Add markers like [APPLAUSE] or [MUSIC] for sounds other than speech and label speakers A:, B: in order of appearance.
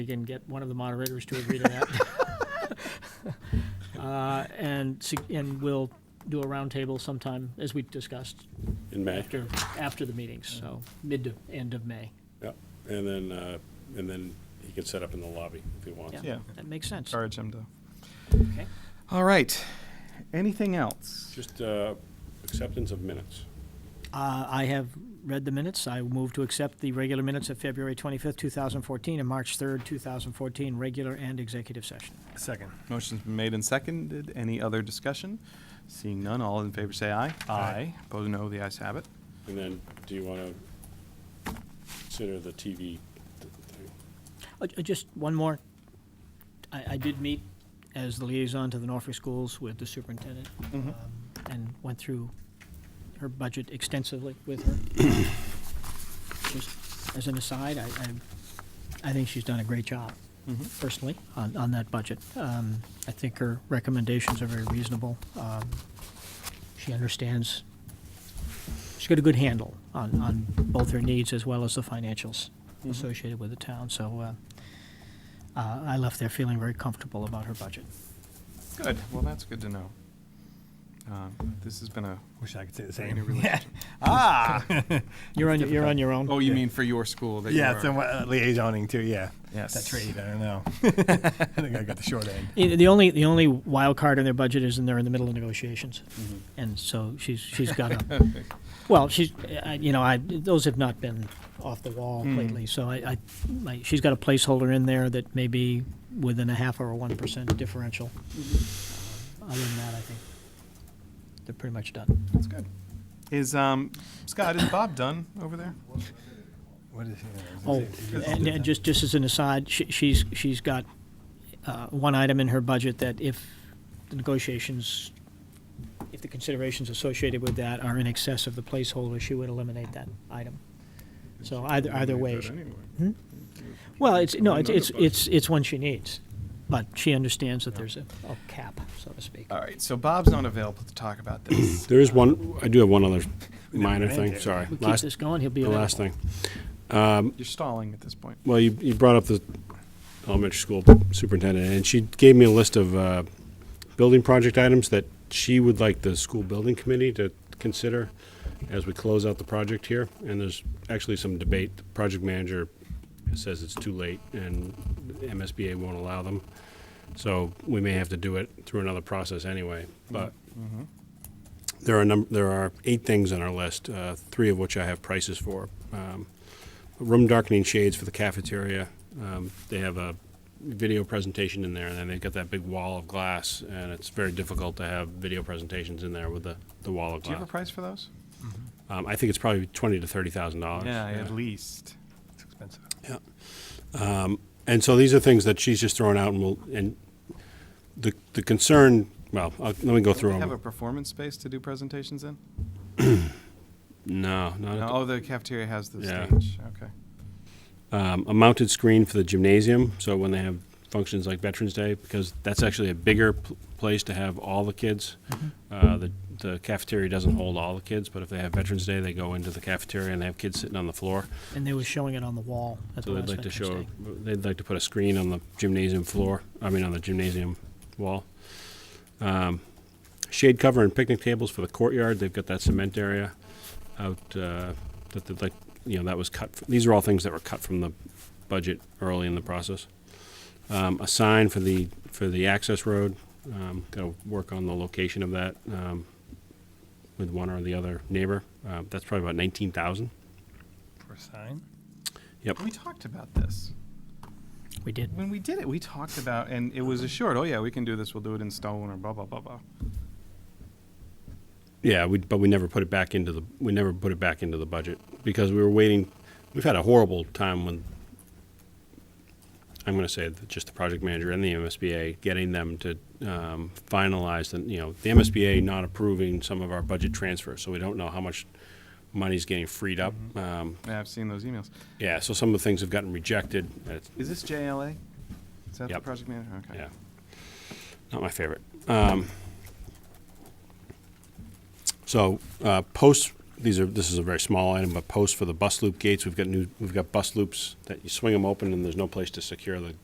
A: We can get one of the moderators to agree to that. [LAUGHS] Uh, And, se- and we'll do a roundtable sometime, as we discussed,
B: in May.
A: after, after the meetings, so mid to end of May.
B: Yep. And then, uh, and then he can set up in the lobby if he wants.
A: Yeah,
C: Yeah.
A: that makes sense.
C: Encourage him to.
A: Okay.
C: All right. Anything else?
B: Just uh, acceptance of minutes.
A: Uh, I have read the minutes. I move to accept the regular minutes of February 25th, 2014, and March 3rd, 2014, regular and executive session.
D: Second.
C: Motion's been made and seconded. Any other discussion? Seeing none, all in favor say aye. Aye. Opposed, no. The ayes have it.
B: And then, do you want to consider the TV? th- thing?
A: Uh, uh, Just one more. I, I did meet as the liaison to the Norfolk Schools with the superintendent um, and went through her budget extensively with her. Just as an aside, I, I, I think she's done a great job
C: Mm-hmm.
A: personally on, on that budget. Um, I think her recommendations are very reasonable. Um, She understands, she's got a good handle on, on both her needs as well as the financials associated with the town, so, uh, uh, I left there feeling very comfortable about her budget.
C: Good. Well, that's good to know. Um, This has been a.
D: Wish I could say the
C: I mean, a
D: same. [LAUGHS]
C: really- Ah!
A: You're on, you're on your
C: Oh,
A: own.
C: you
D: Yeah.
C: mean for your school that you
D: Yeah,
C: are-
D: it's a uh, liaisoning too, yeah.
C: Yes.
D: That trade, I
C: [LAUGHS]
D: don't know. [LAUGHS] I think I got the short end.
A: Eh, The only, the only wild card in their budget is in they're in the middle of negotiations. And so she's, she's got a, well, she's, I- you know, I, those have not been off the wall lately. So I, I, my, she's got a placeholder in there that may be within a half or a one percent differential. Uh, Other than that, I think they're pretty much done.
C: That's good. Is, um, Scott, is Bob done over there?
D: What is, yeah, I was
A: Oh,
D: gonna say, it's
A: and, and just, just as an aside, she, she's, she's got, uh, one item in her budget that if the negotiations, if the considerations associated with that are in excess of the placeholder, she would eliminate that item. So either, either way, she- well, it's, no, it's, it's, it's, it's one she needs, but she understands that there's a, a cap, so to speak.
B: Uh,
C: All right, so Bob's not available to talk about [COUGHS] this.
B: There is one, I do
A: [LAUGHS]
B: have one other minor
D: ran
B: thing,
D: there.
B: sorry.
A: We keep
B: Last,
A: this going, he'll be.
B: the
A: on it.
B: last thing.
C: You're stalling at this point.
B: Well, you, you brought up the elementary school superintendent, and she gave me a list of uh, building project items that she would like the school building committee to consider as we close out the project here. And there's actually some debate. The project manager says it's too late, and MSBA won't allow them. So we may have to do it through another process anyway.
C: Mm-hmm.
B: But there are num- there are eight things on our list, uh, three of which I have prices for. Um, room darkening shades for the cafeteria. Um, they have a video presentation in there, and then they've got that big wall of glass, and it's very difficult to have video presentations in there with the, the wall of
C: Do you have
B: glass.
C: a price for those?
B: um, I think it's probably twenty to thirty thousand dollars.
C: At least.
D: expensive.
B: And so these are things that she's just throwing out, and will and the the concern. Well, I'll, let me go
C: Do
B: through
C: they have a
B: them.
C: performance space to do presentations in?
B: No, not at
C: No,
B: the-
C: oh, the cafeteria has the
B: Yeah.
C: stage. Okay.
B: um, a mounted screen for the gymnasium. So when they have functions like Veterans Day, because that's actually a bigger pl- place to have all the kids. Uh, the, the cafeteria doesn't hold all the kids, but if they have Veterans Day, they go into the cafeteria and they have kids sitting on the floor.
A: And they were showing it on the wall at the
B: So
A: last
B: they'd like to
A: Veterans
B: show,
A: Day.
B: they'd like to put a screen on the gymnasium floor, I mean, on the gymnasium wall. Um, Shade cover and picnic tables for the courtyard, they've got that cement area out, uh, that they'd like, you know, that was cut, f- these are all things that were cut from the budget early in the process. Um, a sign for the, for the access road, um, gotta work on the location of that, um, with one or the other neighbor, uh, that's probably about nineteen thousand.
D: For a sign?
B: Yep.
C: We talked about this.
A: We did.
C: When we did it, we talked about, and it was assured, oh, yeah, we can do this. We'll do it in stone or blah, blah, blah, blah.
B: Yeah, we, but we never put it back into the, we never put it back into the budget because we were waiting, we've had a horrible time when, I'm gonna say that just the project manager and the MSBA, getting them to um, finalize, and, you know, the MSBA not approving some of our budget transfers, so we don't know how much money's getting freed up. Um,
C: Yeah, I've seen those emails.
B: Yeah, so some of the things have gotten rejected, That's-
C: Is this JLA? Is that
B: Yep.
C: the project manager? Okay.
B: yeah. Not my favorite. Um, so, uh, posts these are, this is a very small item, but posts for the bus loop gates, we've got new, we've got bus loops that you swing them open and there's no place to secure the